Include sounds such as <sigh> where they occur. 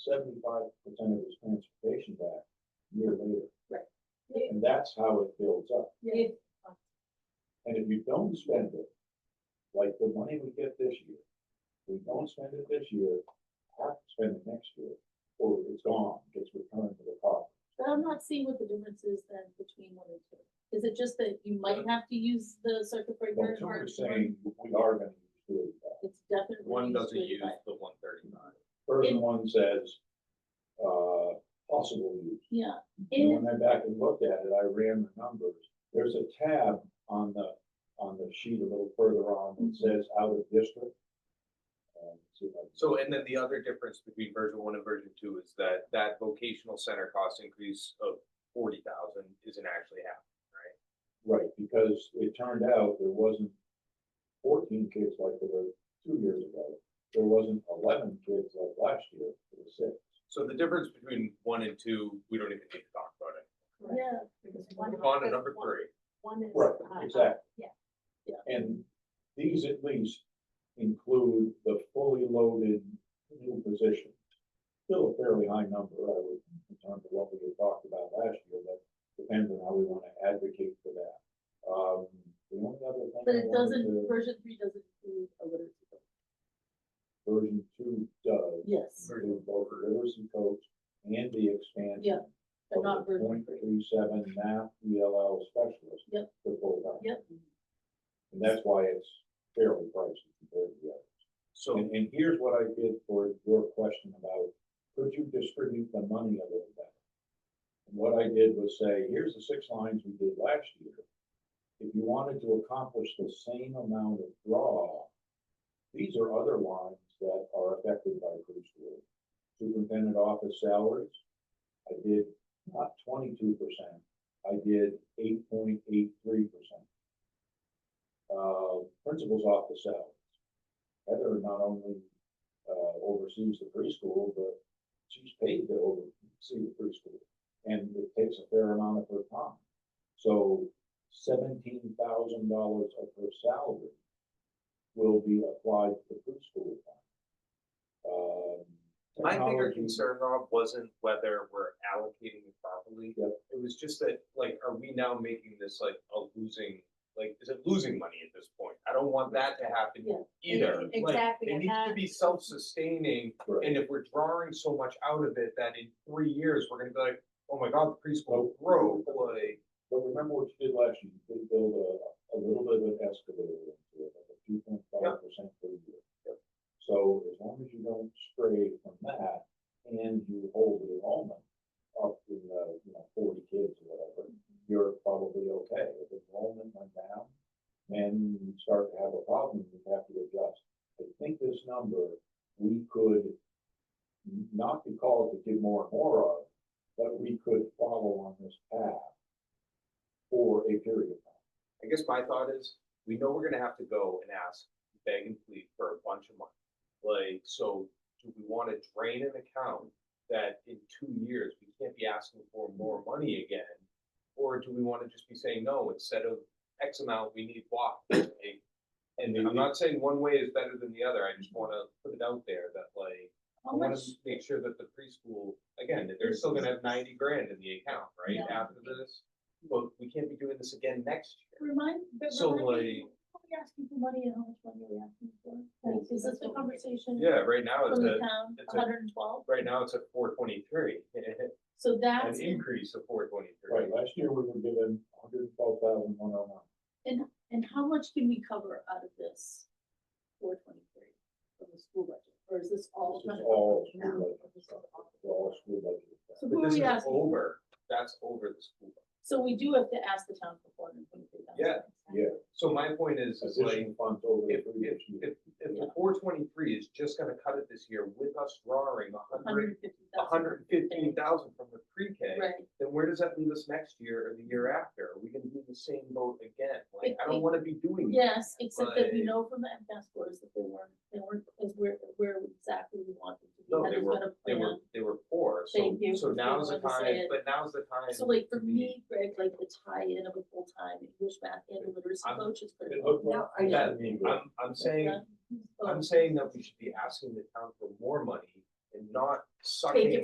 seventy-five percent of his transportation back a year later. Right. And that's how it builds up. It, And if you don't spend it, like the money we get this year, we don't spend it this year, have to spend it next year, or it's gone, gets returned to the pot. but I'm not seeing what the difference is then between one and two. Is it just that you might have to use the circuit breaker? But in two order are to- saying we are gonna uh, do it. It's definitely. One used doesn't with use that. the one thirty-nine. Person one says, uh, possible use. Yeah, Mm-hmm. And and when I back and looked at it, I ran the numbers. There's a tab on the, on the sheet a little further on that Mhm. says out of district. Um, see if I can- So, and then the other difference between version one and version two is that that vocational center cost increase of forty thousand isn't actually happening. Right, because it turned out there wasn't fourteen kids like there were two years ago. There wasn't eleven kids like last year, it was six. So the difference between one and two, we don't even need to talk about it. yeah, Move on to number three. One is. Right, uh, exactly. yeah. Yeah. And these at least include the fully loaded new positions. Still a fairly high number, I would, in terms of what we had talked about last year, but depends on how we wanna advocate for that. Um, the only other thing. but I it wanted doesn't, to- version three doesn't include a literacy. book. Version two does, Yes, include both literacy coach and the expansion. Yeah, but not version Point three. three seven math ELL specialist. Yep. To full time. Yep, And that's why it's fairly pricey compared to the others. So, And, and here's what I did for your question about, could you distribute the money a little better? And what I did was say, here's the six lines we did last year. If you wanted to accomplish the same amount of draw, these are other lines that are affected by cruise rule. Superintendent office salaries, I did not twenty-two percent, I did eight point eight three percent. Uh, principal's office salaries, Heather not only, uh, oversees the preschool, but she's paid to oversee the preschool. And it takes a fair amount of her time. So seventeen thousand dollars of her salary will be applied to the preschool fund. Um, my bigger technology- concern, Rob, wasn't whether we're allocating it properly. Yeah. It was just that, like, are we now making this like a losing, like, is it losing money at this point? I don't want that to happen Yeah. either. Like, Exactly, It and needs to that- be self-sustaining Correct. And if we're drawing so much out of it that in three years, we're gonna be like, oh my god, the preschool broke, like. But remember what you did last year, you did build a, a little bit of an escalator into it, like a two point five percent per year. So as long as you don't stray from that and you hold the enrollment up to, uh, you know, forty kids or whatever, you're probably okay. If enrollment went down, then you start to have a problem, you have to adjust. I think this number, we could n- not be called to give more and more of, but we could follow on this path for a period of I guess my thought is, we know we're gonna have to go and ask, beg and plead for a bunch of money. Like, so do we wanna drain an account that in two years, we can't be asking for more money again? Or do we wanna just be saying, no, instead of X amount, we need Y? Like, And I'm not saying one way is better than the other, I just wanna put it out there that like, I how wanna much, make sure that the preschool, again, that they're still gonna have ninety grand in the account, right, Yeah. after this? But we can't be doing this again next year. remind, but So, remind me, like- how are we asking for money and how much money are we asking for? Like, is this the conversation Yeah, right now it's from the at, town, it's a- hundred and twelve? right now it's at four twenty-three, <laughs> So an that's, increase of four time. Right, twenty-three. last year we were given hundred and twelve thousand one oh one. and how much can we cover out of this four twenty-three from the school budget, or is this all? This is funded? all No. school budget stuff. It's all school budget So stuff. who But are this we is asking? for? over, that's over the school. budget. So we do have to ask the town for four hundred and twenty-three thousand. Yeah. Yeah, So my point is, is like, additional funds over the if, previous if, year. if, if the four twenty-three is just gonna cut it this year with us drawing a Hundred hundred, and fifty a thousand. hundred and fifteen thousand from the pre-K. Right, then where does that leave us next year or the year after? Are we gonna do the same boat again? Like, I don't wanna be doing. that. yes, except that we Like- know from the MCAS scores that they weren't, they weren't, is where, where exactly we want them to be. No, That they has were- been a They were, plan. they were poor, so, Thank you so for now's the being willing to say time, it. but now's the time. So like for to be- me, Greg, like the tie-in of a full-time English, math, and literacy I'm- coach is It critical. looked like- No, I- Yeah, I'm, I'm saying, Yeah. Oh. I'm saying that we should be asking the town for more money and and not suck Take it in